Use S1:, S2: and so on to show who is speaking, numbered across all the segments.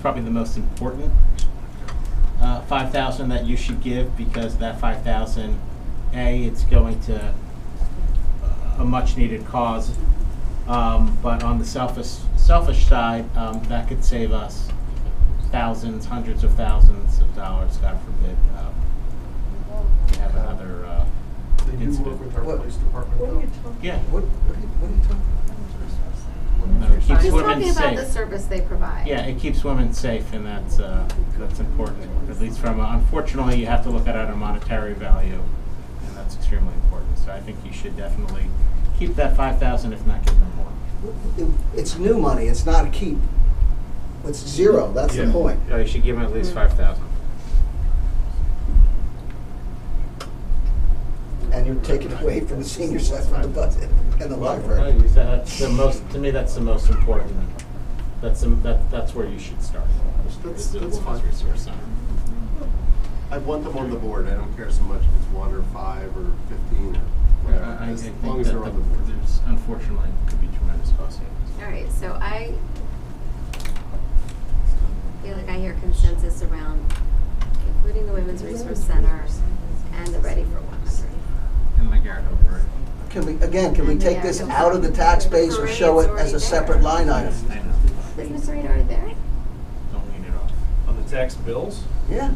S1: probably the most important uh, five thousand that you should give because that five thousand, a it's going to uh, a much needed cause. Um, but on the selfish selfish side, um, that could save us thousands, hundreds of thousands of dollars. God forbid um, we have another. Uh,
S2: They do work
S1: incident.
S2: with our
S3: What?
S2: police department
S4: What are you
S2: though.
S4: talking?
S1: Yeah.
S3: What, what are you, what are you talking
S1: No, it keeps
S5: He's
S1: women
S5: talking about
S1: safe.
S5: the service they provide.
S1: Yeah, it keeps women safe, and that's uh, that's important. At least from a, unfortunately, you have to look at it on a monetary value, and that's extremely important. So I think you should definitely keep that five thousand, if not give them more.
S3: about? It- It's new money, it's not a keep. It's zero, that's the
S2: Yeah.
S3: point.
S1: No, Oh, you should give them at least five thousand.
S3: And you're taking away from the senior center, the budget, and the library.
S1: That's the most. To me, that's the most important. That's the, that, that's where you should start.
S2: That's,
S1: Is the
S2: that's
S1: Women's
S2: fine.
S1: Resource Center.
S2: I want them on the board. I don't care so much if it's one or five or fifteen or whatever,
S1: I, I
S2: as
S1: think
S2: long as
S1: that
S2: they're on
S1: the-
S2: the board.
S1: there's unfortunately could be tremendous cost savings.
S5: All right, so I feel like I hear consensus around including the Women's Resource Center and the Ready for One Hundred.
S1: And my guard over it.
S3: Can we, again, can we
S5: And they
S3: take
S5: are
S3: this
S5: com-
S3: out of the tax base or show it as
S5: Parade
S3: a
S5: is already
S3: separate line item?
S1: Yes, I know.
S5: Is Ms. Reed already there?
S1: Don't lean it off.
S6: On the tax bills?
S3: Yeah.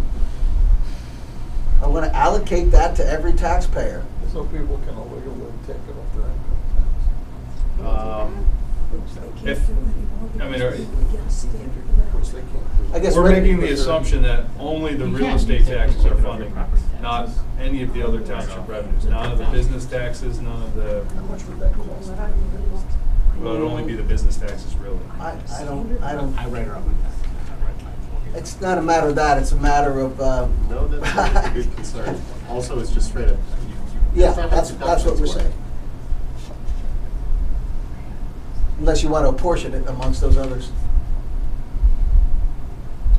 S3: I want to allocate that to every taxpayer.
S7: So people can illegally take it off their income
S6: Um, If, I mean, are-
S7: tax, which they can't do.
S3: I guess
S6: we're
S3: maybe-
S6: making the assumption that only the
S1: You
S6: real
S1: can.
S6: estate taxes are funding,
S1: Property taxes.
S6: not any of the other township revenues, none of the business taxes, none of the,
S7: How much would that cost?
S6: well, it'd only be the business taxes really.
S3: I, I don't, I don't,
S1: I read her up with that. I read mine.
S3: it's not a matter of that, it's a matter of, uh,
S2: No, that's a good concern. Also, it's just straight up. you- you-
S3: yeah,
S2: it's not like
S3: that's, that's what
S2: deductions
S3: we're
S2: work.
S3: saying. Unless you want to apportion it amongst those others.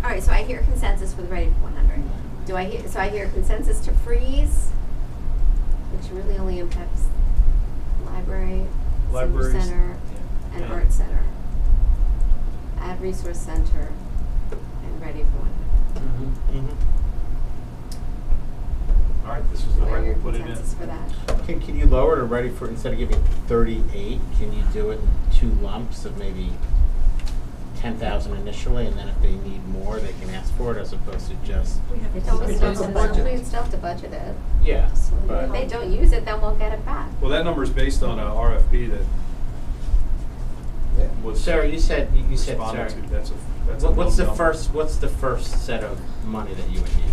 S5: All right, so I hear consensus with Ready for One Hundred. Do I hear, so I hear consensus to freeze, which really only impacts library, senior
S6: Libraries.
S5: center, and
S6: Yeah.
S5: art center. Add resource center and Ready for One Hundred.
S1: Mm-hmm.
S6: All right, this was the
S5: What are
S6: right,
S5: your
S6: we'll put it in.
S5: consensus for that?
S1: Can, can you lower it already for, instead of giving thirty-eight, can you do it in two lumps of maybe ten thousand initially, and then if they need more, they can ask for it, as opposed to just,
S5: They don't
S1: It's
S5: still
S1: a
S5: have to,
S1: budget.
S5: we still have to budget it.
S1: yeah,
S5: So
S1: but.
S3: Oh.
S5: If they don't use it, then we'll get it back.
S6: Well, that number's based on a RFP that
S3: Yeah.
S6: was
S1: Sarah, you said, you- you said,
S6: responded
S1: sorry.
S6: to, that's a, that's a
S1: What- What's
S6: known
S1: the
S6: number.
S1: first, what's the first set of money that you would need?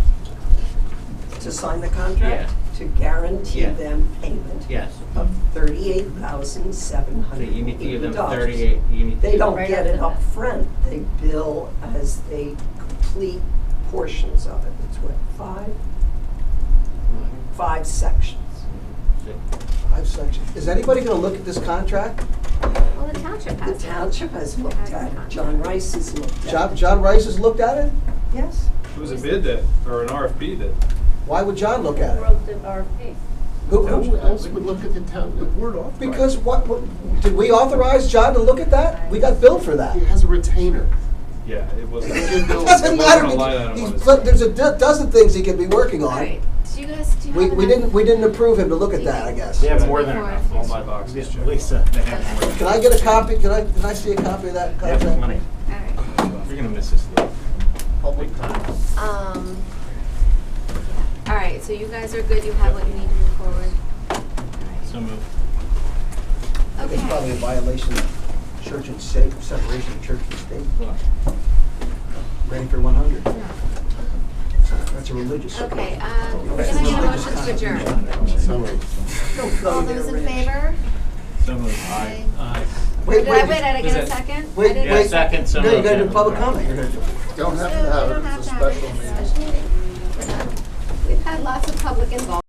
S8: to sign the contract to guarantee
S1: Yeah.
S8: them payment
S1: Yes.
S8: of thirty-eight thousand seven
S1: So
S8: hundred
S1: you
S8: and
S1: need to give
S8: eighty
S1: them
S8: dollars.
S1: thirty-eight, you need.
S8: They don't
S5: Right
S8: get
S5: off
S8: it
S5: the bat.
S8: upfront, they bill as they complete portions of it, it's what, five, five sections.
S3: Five sections. Is anybody going to look at this contract?
S5: Well, the township
S8: The
S5: has it.
S8: township has looked
S5: Has
S8: at it,
S5: not.
S8: John Rice has looked at
S3: John,
S8: it.
S3: John Rice has looked at it?
S8: Yes,
S6: It was a bid that, or an RFP that
S3: Why would John look at it?
S4: Wrote the RFP.
S3: Who,
S2: Who
S3: who,
S2: else would look at the town, the board off?
S3: because what, what- did we authorize John to look at that? We got billed for that.
S2: He has a retainer.
S6: Yeah, it was.
S2: It
S3: It doesn't matter. He's- but there's a do- dozen things he could be working
S5: All
S3: on.
S5: right, do you guys, do you have
S3: We,
S5: enough?
S3: we didn't, we didn't approve him to look at that, I guess.
S1: They have more than
S5: Before.
S1: enough.
S6: All my boxes checked.
S1: Lisa, they have more. than
S3: Can I get a copy, can I, can I see a copy of that
S1: They have
S3: contract?
S1: plenty.
S5: All right,
S1: You're gonna miss this, Lou.
S2: Public comment.
S5: um, all right, so you guys are good, you have what you need to move forward?
S1: So moved.
S5: Okay.
S3: It's probably a violation of church and state, separation of church and state,
S1: Look,
S3: ready for one hundred. That's a religious.
S5: Okay, uh, can I get a motion to adjourn?
S2: So moved.
S8: don't go
S5: All
S8: there,
S5: those in
S8: Rich.
S5: favor?
S1: So moved.
S5: Aye.
S3: Wait,
S5: Did I,
S3: wait,
S5: wait, did I get a
S6: Is it-
S5: second?
S3: wait,
S5: I didn't-
S1: Yeah,
S3: wait.
S1: second, so
S3: No, you
S1: moved,
S3: gotta do
S1: yeah.
S3: public comment, you're gonna do.
S2: Don't have
S5: No,
S2: to have
S5: we
S2: it,
S5: don't
S2: it's
S5: have
S2: a
S5: to have it.
S2: special meeting.
S5: Special meeting. We're done. We've had lots of public involvement.